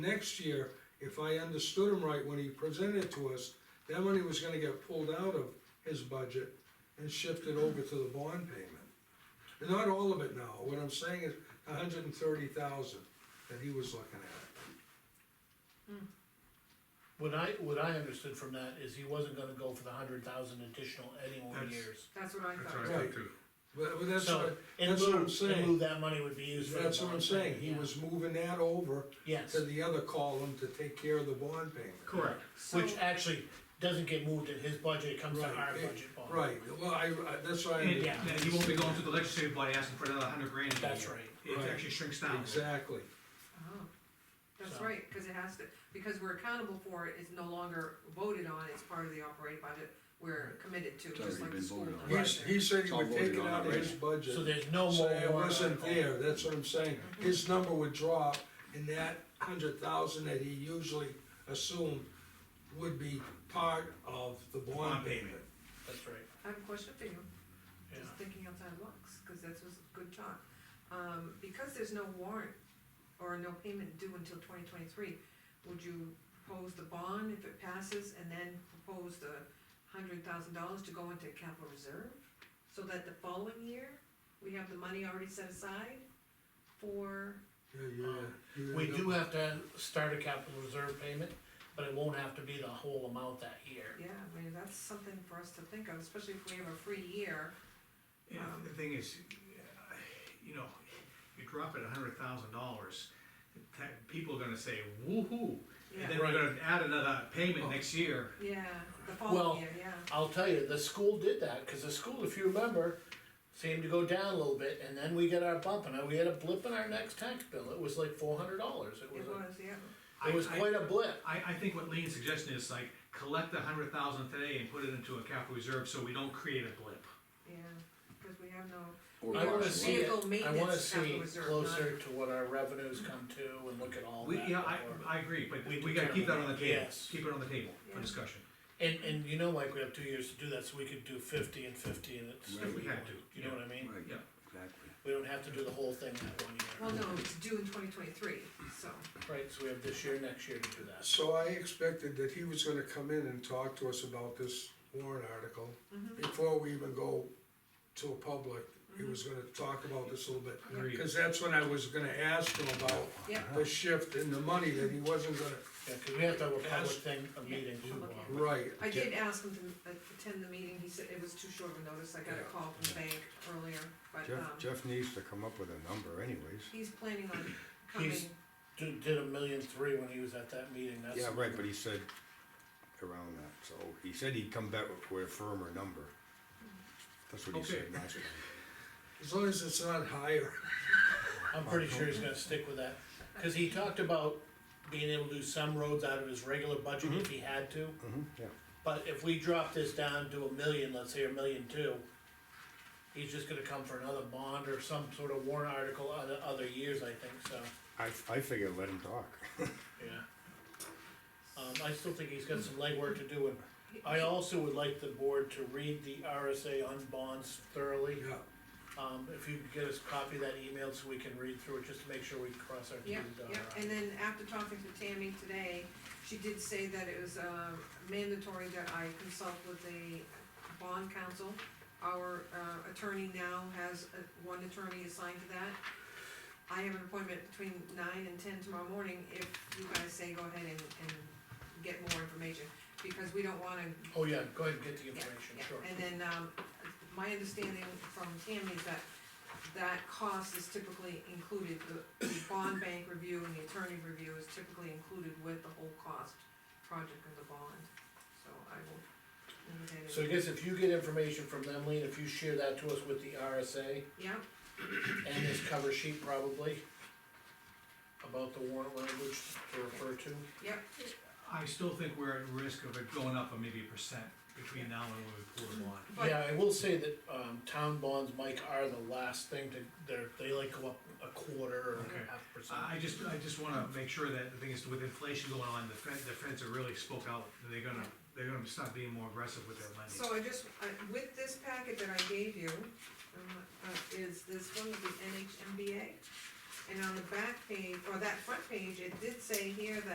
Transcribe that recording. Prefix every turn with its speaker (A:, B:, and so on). A: Next year, if I understood him right when he presented it to us, that money was gonna get pulled out of his budget and shifted over to the bond payment. And not all of it now, what I'm saying is hundred and thirty thousand that he was looking at.
B: What I, what I understood from that is he wasn't gonna go for the hundred thousand additional any more
C: That's-
B: years.
D: That's what I
C: That's
D: thought.
C: what I
A: Right.
C: thought too.
A: But, but that's
B: So,
A: what,
B: in
A: that's what
B: lieu,
A: I'm
B: in
A: saying.
B: lieu, that money would be used for. the
A: that's what I'm
B: bond
A: saying,
B: payment,
A: he
B: yeah.
A: was moving that over
B: Yes,
A: to the other column to take care of the bond payment.
B: correct,
D: So-
B: which actually doesn't get moved in his budget, it comes to
A: Right,
B: our
A: it-
B: budget bond.
A: Right, well, I, I, that's why I.
C: And
B: Yeah.
C: that you won't be going to the legislative body asking for another hundred grand. a
B: That's
C: year.
B: right.
A: Right.
C: It actually shrinks down.
A: Exactly,
D: Oh, That's
B: So-
D: right, cause it has to, because we're accountable for it, it's no longer voted on, it's part of the operating budget, we're committed to, just
E: already
D: like the
E: been
D: school.
E: voted on.
D: does
A: he's,
D: there.
A: he said he
E: It's all
A: would take
E: voted
A: it
E: on
A: out of his
E: already.
A: budget.
B: So there's no more.
A: So it
B: warrant
A: wasn't
B: article.
A: there, that's what I'm saying, his number would drop, and that hundred thousand that he usually assumed would be part of the bond
C: Bond
A: payment.
C: payment.
B: That's right,
D: I have a question for you,
B: yeah,
D: just thinking outside the box, cause that's was good talk. Um, because there's no warrant or no payment due until twenty twenty-three, would you propose the bond if it passes and then propose the hundred thousand dollars to go into capital reserve? So that the following year, we have the money already set aside for,
A: Yeah, yeah, yeah.
B: we do have to start a capital reserve payment, but it won't have to be the whole amount that year.
D: yeah, I mean, that's something for us to think of, especially if we have a free year.
C: You know, the thing is, you know, you drop it a hundred thousand dollars, people are gonna say, woo-hoo.
D: Yeah.
C: And then we're gonna add another
B: Oh.
C: payment next year.
D: Yeah, the
B: Well-
D: following year, yeah.
B: I'll tell you, the school did that, cause the school, if you remember, seemed to go down a little bit, and then we got our bump, and we had a blip in our next tax bill, it was like four hundred dollars, it was
D: It
B: a,
D: was, yeah,
B: it was
C: I- I-
B: quite a blip.
C: I, I think what Lean's suggestion is like, collect a hundred thousand today and put it into a capital reserve so we don't create a blip.
D: yeah, cause we have no.
E: Or
B: I wanna
E: watch
B: see it,
D: Vehicle
B: I wanna
D: maintenance
B: see
D: capital reserve,
B: closer to what our revenues come to and look at all
C: We,
B: that.
C: yeah, I,
B: before.
C: I agree, but
B: We
C: we gotta keep that on the
B: determine,
C: table,
B: yes.
C: keep it on the table for
D: Yeah.
C: discussion.
B: And, and you know, Mike, we have two years to do that, so we could do fifty and fifty and it's.
E: Right. If
C: we had to,
B: You know what I mean?
E: Right,
C: Yeah.
E: exactly.
B: We don't have to do the whole thing that one
D: Well,
B: year.
D: no, it's due in twenty twenty-three, so,
B: Right, so we have this year, next year to do that.
A: So I expected that he was gonna come in and talk to us about this warrant article, before we even go to a public, he was gonna talk about this a little bit.
C: Agreed.
A: Cause that's when I was gonna ask him about
D: yeah,
A: the shift in the money that he wasn't gonna,
B: Yeah, cause we have to have a public
A: Ask-
B: thing, a meeting too.
D: public
B: Bob.
A: right.
D: I did ask him to uh, attend the meeting, he said it was too short of a notice, I got a call from the bank earlier, but,
F: Jeff,
D: um,
F: Jeff needs to come up with a number anyways.
D: he's planning on coming,
B: He's- Did, did a million three when he was at that meeting, that's.
F: Yeah, right, but he said around that, so he said he'd come back with a firmer number. That's what he
C: Okay.
F: said last time.
A: As long as it's not higher.
B: I'm pretty sure he's gonna stick with that, cause he talked about being able to do some roads out of his regular budget if he had to.
F: hmm yeah.
B: But if we drop this down to a million, let's say a million two, he's just gonna come for another bond or some sort of warrant article other, other years, I think, so,
F: I, I figured let him talk.
B: yeah. Um, I still think he's got some legwork to do, and I also would like the board to read the RSA on bonds thoroughly.
A: Yeah,
B: Um, if you could get us a copy of that email so we can read through it, just to make sure we cross our T's
D: yeah,
B: and dot
D: yeah,
B: our I's.
D: and then after talking to Tammy today, she did say that it was, uh, mandatory that I consult with the bond counsel. Our, uh, attorney now has, uh, one attorney assigned to that. I have an appointment between nine and ten tomorrow morning, if you guys say go ahead and, and get more information, because we don't wanna
B: Oh, yeah, go ahead and get the information,
D: yeah,
B: sure.
D: And then, um, my understanding from Tammy is that that cost is typically included, the, the bond bank review and the attorney review is typically included with the whole cost project of the bond, so I will. indicate it.
B: So I guess if you get information from them, Lean, if you share that to us with the RSA,
D: Yeah,
B: and this cover sheet probably about the warrant language to refer to.
D: yep,
C: I still think we're at risk of it going up by maybe a percent between now and when we pull the bond.
D: but,
B: Yeah, I will say that, um, town bonds, Mike, are the last thing to, they're, they like go up a quarter or
C: Okay.
B: a half percent.
C: I I just, I just wanna make sure that, the thing is, with inflation going on, the Fed, the Feds have really spoke out, they're gonna, they're gonna start being more aggressive with their lending.
D: so I just, I, with this packet that I gave you, um, uh, is this one with the NHMBA? And on the back page, or that front page, it did say here that